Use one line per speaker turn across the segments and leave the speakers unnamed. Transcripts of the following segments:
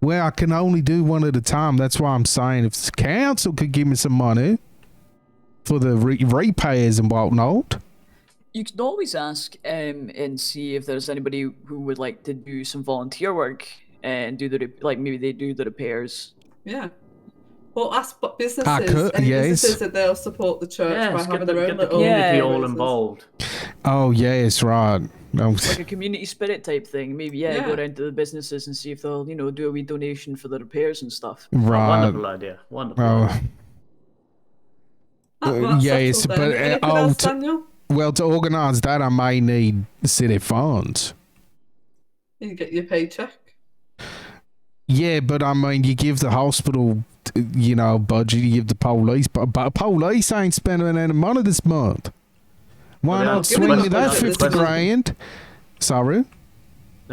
Well, I can only do one at a time. That's why I'm saying if the council could give me some money for the re- repairs and whatnot.
You can always ask um, and see if there's anybody who would like to do some volunteer work and do the rep- like maybe they do the repairs.
Yeah. Well, ask bu- businesses.
I could-
any
yes.
businesses that they'll support the church
Yeah,
by
it's
having
get the,
their own
get the
little.
community
Yeah.
all
businesses.
involved.
Oh yes, right. Oh, No,
Oh,
Like a community spirit type thing. Maybe yeah, go
Yeah.
down to the businesses and see if they'll, you know, do a wee donation for the repairs and stuff.
right.
Wonderful idea. Wonderful. idea.
Oh,
Ah, well,
Uh,
that's
yes,
settled
but,
then.
uh,
Anything
oh,
else,
t-
Daniel?
well, to organise that, I may need city funds.
You get your paycheck.
Yeah, but I mean, you give the hospital, t- you know, budget. You give the police, but, but police ain't spending any money this month. Why
Well, they
not
aren't
swing me
requesting
that
it.
fifty
Requesting-
grand? Sorry.
They're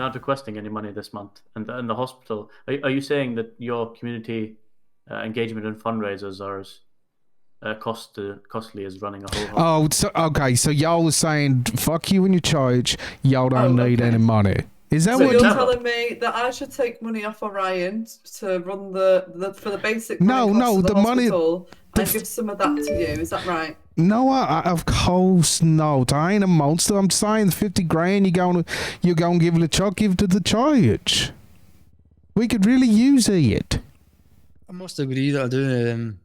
not requesting any money this month, and the, and the hospital. Are, are you saying that your community uh, engagement and fundraisers are as uh, cost uh, costly as running a whole? hospital?
Oh, so, okay. So y'all are saying fuck you and your church. Y'all don't
Oh,
need
okay.
any money. Is that
So
So
what?
you're
no.
telling me that I should take money off Orion to run the, the for the basic
No,
running costs
no,
of the,
the money-
hospital
the
and
f-
give some of that to you. Is that right?
No, I, I, of course not. I ain't a monster. I'm saying fifty grand. You gonna you gonna give it a chuck? Give it to the church. We could really use it.
I must agree that I do. Um,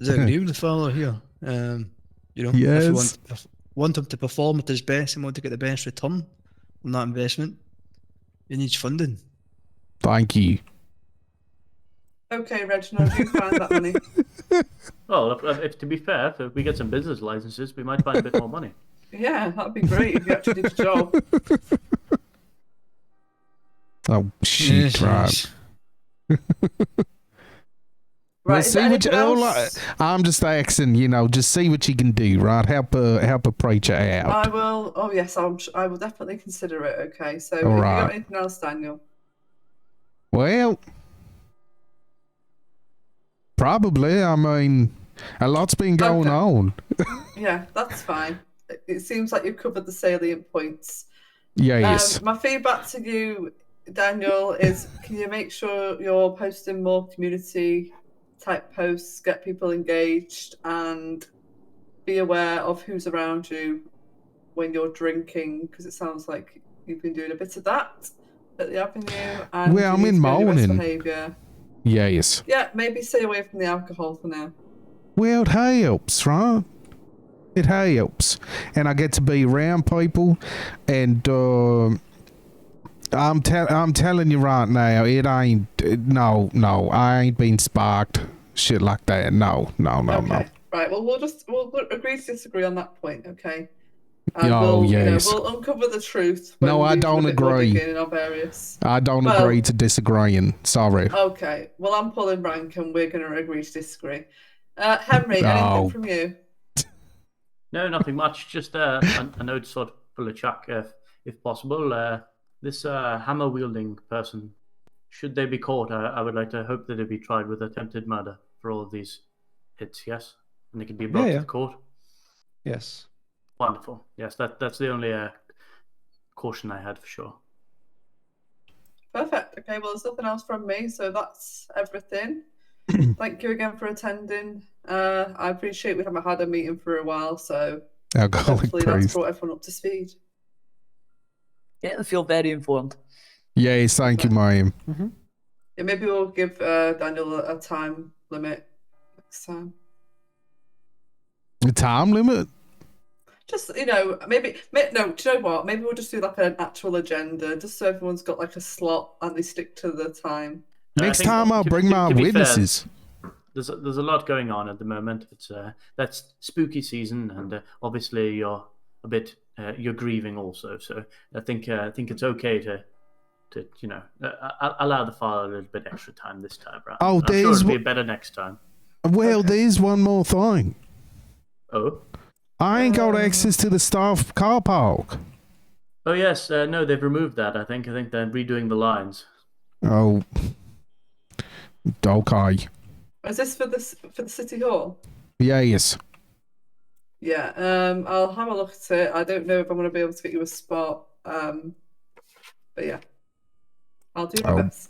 I do agree with the fellow here. Um, you know, if you
Yes.
want, if want him to perform at his best and want to get the best return on that investment, you need funding.
Thank you.
Okay, Reginald, you find that money.
Well, if, if, to be fair, if- if we get some business licenses, we might find a bit more money.
Yeah, that'd be great if you actually did the job.
Oh shit!
Yes,
right.
yes.
Right.
Well,
is
see
there
what you,
anything
all I,
else?
I'm just asking, you know, just see what you can do, right? Help a help a preacher out.
I will. Oh yes, I'm. sh- I will definitely consider it. Okay. So, have you
Alright.
got anything else, Daniel?
well, probably. I mean, a lot's been going
Okay.
on.
Yeah, that's fine. It- It seems like you've covered the salient points.
Yes.
Um, my feedback to you, Daniel, is can you make sure you're posting more community type posts, get people engaged, and be aware of who's around you when you're drinking? Because it sounds like you've been doing a bit of that at the avenue. And
Well,
you
I'm
need
in
to be on your best
mourning.
behaviour.
yes.
Yeah, maybe stay away from the alcohol for now.
Well, it helps, right? It helps, and I get to be around people, and uh, I'm tell I'm telling you right now, it ain't it- no no. I ain't been sparked shit like that. No no no
okay.
no.
Right. Well, we'll just we'll we'll agree to disagree on that point, okay? And
Oh,
we'll,
yes.
You know, we'll uncover the truth.
No,
when
I
we do a
don't
bit more
agree.
digging in our various.
I don't
Well-
agree to disagreeing. Sorry.
Okay. Well, I'm pulling rank, and we're going to agree to disagree. Uh, Henry,
No.
anything from you?
No, nothing much. Just uh, an, an old sort full of chuck, if, if possible. Uh, this uh, hammer wielding person, should they be caught, I, I would like to hope that they be tried with attempted murder for all of these hits. Yes, and they can be brought
Yeah, yeah.
to the court.
Yes.
Wonderful. Yes, that that's the only uh, caution I had for sure.
Perfect. Okay. Well, there's nothing else from me, so that's everything. Thank you again for attending. Uh, I appreciate we haven't had a meeting for a while, so
Alcoholic
hopefully that's
priest.
brought everyone up to speed.
Yeah, I feel very informed.
Yes, thank you, ma'am.
Yeah, maybe we'll give uh, Daniel a, a time limit next time.
The time limit?
Just you know, maybe may, no. Do you know what? Maybe we'll just do like an actual agenda, just so everyone's got like a slot and they stick to the time.
No, I
Next
think-
time I'll
to-
bring
to-
my
to be fair,
witnesses.
there's a, there's a lot going on at the moment. It's uh, that's spooky season, and uh, obviously you're a bit uh, you're grieving also. So I think uh, I think it's okay to to you know uh, a- allow the father a little bit extra time this time round.
Oh,
I'm sure
there's
it'll be
w-
better next time.
Well,
Okay.
there's one more thing.
Oh
I ain't
Um,
got access to the staff car park.
oh yes, uh, no, they've removed that. I think I think they're redoing the lines.
Oh. Okay.
Is this for this for the city hall?
Yes.
Yeah. Um, I'll have a look at it. I don't know if I'm gonna be able to get you a spot. Um, but yeah, I'll do my
Oh.
best.